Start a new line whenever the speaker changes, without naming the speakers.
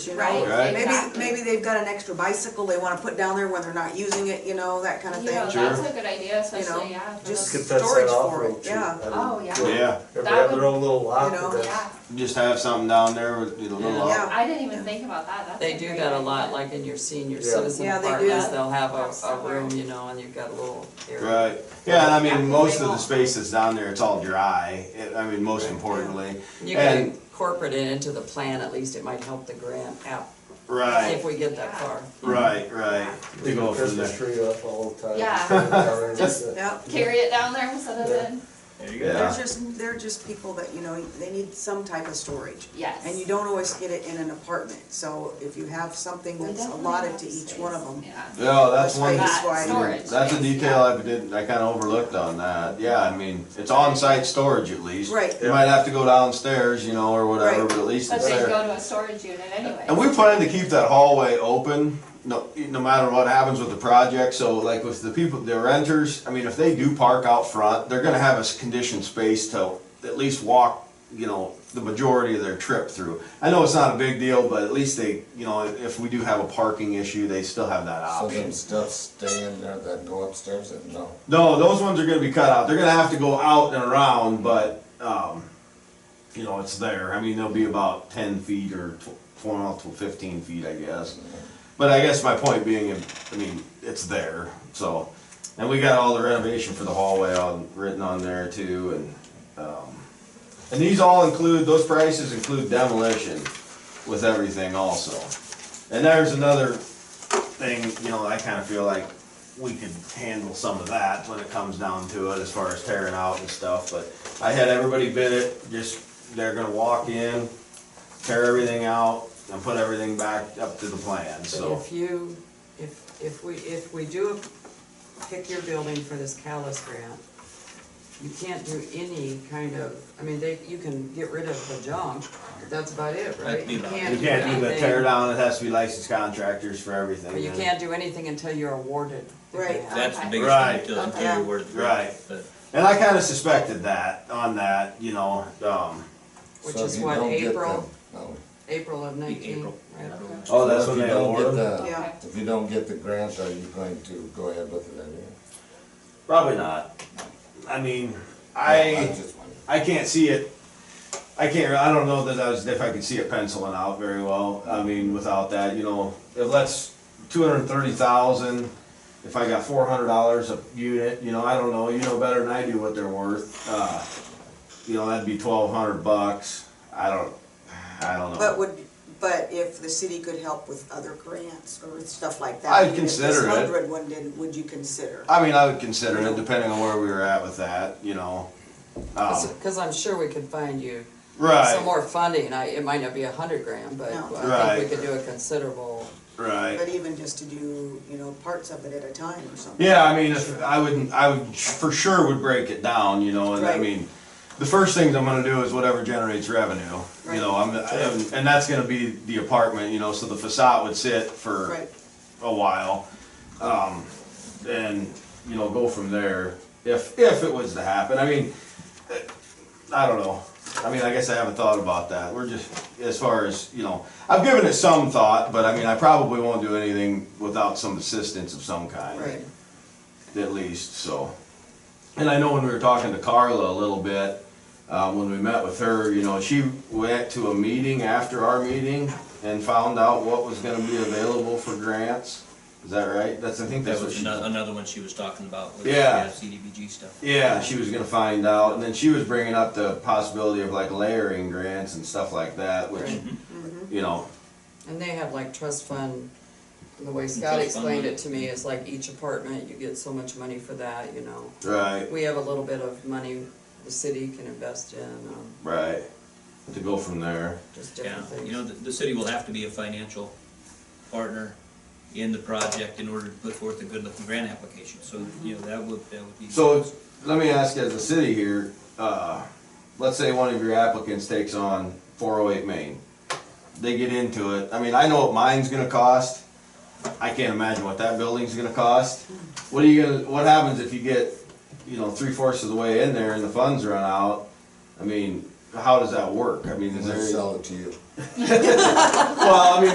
you
Right,
know?
Right.
exactly.
Maybe, maybe they've got an extra bicycle they wanna put down there when they're not using it, you know, that kinda
You know,
thing.
Sure.
that's a good idea,
know,
especially, yeah. for
just-
those-
Get that
Storage
set off
for
real
it,
cheap.
yeah.
I mean,
Oh, yeah.
Yeah,
If they
That
have
would-
their own little lot,
You know,
then
Yeah,
just have something down there with a little
Yeah.
off.
I didn't even think about that, that's
They
a
do
great
that a
idea.
lot, like in your senior
Yeah.
citizen
Yeah, they do
apartments,
that.
they'll have
Have
a, a
somewhere.
room, you know, and you've got a little area.
Right, yeah, and I mean,
Yeah.
most of the spaces down there, it's all dry, It- I mean, most importantly.
You can
And,
incorporate it into the plan, at least it might help the grant out, if
right,
we get that far.
right, right. To
leave
go
a
from
Christmas
there.
tree up all the time.
Yeah.
Sit down and
Just-
sit.
Yep.
Carry it down there instead of
Yeah.
in,
There you
Yeah.
go.
They're just, they're just people that, you know, they need some type of storage.
yes.
And you don't always get it in an apartment, so if you have something
We
that's
definitely
allotted
have
to each
space,
one of them.
Yeah.
Yeah, that's one,
Space.
That
why-
storage
that's a
space, yeah.
detail I didn't, I kinda overlooked on that, yeah, I mean, it's on-site storage at least.
Right.
You might have to go downstairs, you know, or whatever,
Right.
but at least
But
it's
they
there.
go to a storage unit anyway.
And we plan to keep that hallway open, no, no matter what happens with the project, so like with the people, the renters, I mean, if they do park out front, they're gonna have a s- conditioned space to at least walk, you know, the majority of their trip through. I know it's not a big deal, but at least they, you know, if we do have a parking issue, they still have that
So
option.
them stuff stay in there that go upstairs and no.
No, those ones are gonna be cut out. They're gonna have to go out and around, but, um, you know, it's there. I mean, they'll be about ten feet or tw- twelve to fifteen feet, I guess. But I guess my point being, I mean, it's there, so. And we got all the renovation for the hallway on, written on there too, and, um, and these all include, those prices include demolition with everything also. And there's another thing, you know, I kinda feel like we could handle some of that when it comes down to it as far as tearing out and stuff, but I had everybody bid it, just, they're gonna walk in, tear everything out, and put everything back up to the plan,
But
so.
if you, if, if we, if we do pick your building for this Callis grant, you can't do any kind of, I mean, they, you can get rid of the junk, but that's about it, right?
be
You
about
can't
You can't do the
anything-
tear down, it has to be licensed contractors for everything.
But you
then.
can't do anything until you're awarded the
Right.
grant.
That's the
Okay.
biggest
Right.
thing until
Okay.
until you're worth.
Right. And I kinda suspected that, on that, you know, um,
Which
So
is
if you
what,
don't get
April?
the- No.
April of nineteen.
April.
right?
oh, that's
So
when
if you
they
don't get
award them?
the-
Yeah.
If you don't get the grant, are you going to go ahead with it anyway?
Probably not. I mean,
I'm
I,
just wondering.
I can't see it, I can't, I don't know that I was, if I could see it penciling out very well, I mean, without that, you know, if that's two hundred and thirty thousand, if I got four hundred dollars a unit, you know, I don't know, you know better than I do what they're worth, uh, you know, that'd be twelve hundred bucks, I don't, I don't know.
But would, but if the city could help with other grants or stuff like that.
I'd
even if this
consider it.
Hundred one did, would you consider?
I mean, I would consider it, depending on where we were at with that, you know. Um,
Because I'm sure we could find you some
right,
more funding, I, it might not be a hundred grand, but
No.
I think
Right.
we could do a considerable,
But
right.
even just to do, you know, parts of it at a time or something.
Yeah, I mean, if, I wouldn't, I would, for sure would break it down, you know, and I
Right.
mean, the first things I'm gonna do is whatever generates revenue, you know, I'm, I'm- and that's gonna be the apartment, you know, so the facade would sit for
Right,
a while. Um, and, you know, go from there, if, if it was to happen, I mean, eh, I don't know. I mean, I guess I haven't thought about that, we're just, as far as, you know, I've given it some thought, but I mean, I probably won't do anything without some assistance of some kind
right.
at least, so. And I know when we were talking to Carla a little bit, uh, when we met with her, you know, she went to a meeting after our meeting and found out what was gonna be available for grants. Is that right? That's, I think
That
that's what
was
she.
ano- another one she was talking about. was,
Yeah.
CDBG stuff.
Yeah, she was gonna find out, and then she was bringing up the possibility of like layering grants and stuff like that, which,
Right.
you know,
and they have like trust fund, the way Scott
fund
explained
money.
it to me, is like each apartment, you get so much money for that, you know.
right,
We have a little bit of money the city can invest in, um,
right, to go from there.
just
Yeah,
different things.
you know, the, the city will have to be a financial partner in the project in order to put forth a good-looking grant application, so, you know, that would, that would be.
So, let me ask you, as a city here, uh, let's say one of your applicants takes on four oh eight Main. They get into it, I mean, I know what mine's gonna cost, I can't imagine what that building's gonna cost. What are you gonna, what happens if you get, you know, three fourths of the way in there and the funds run out? I mean, how does that work? I mean,
And
is
they
there,
sell it to you.
well, I mean,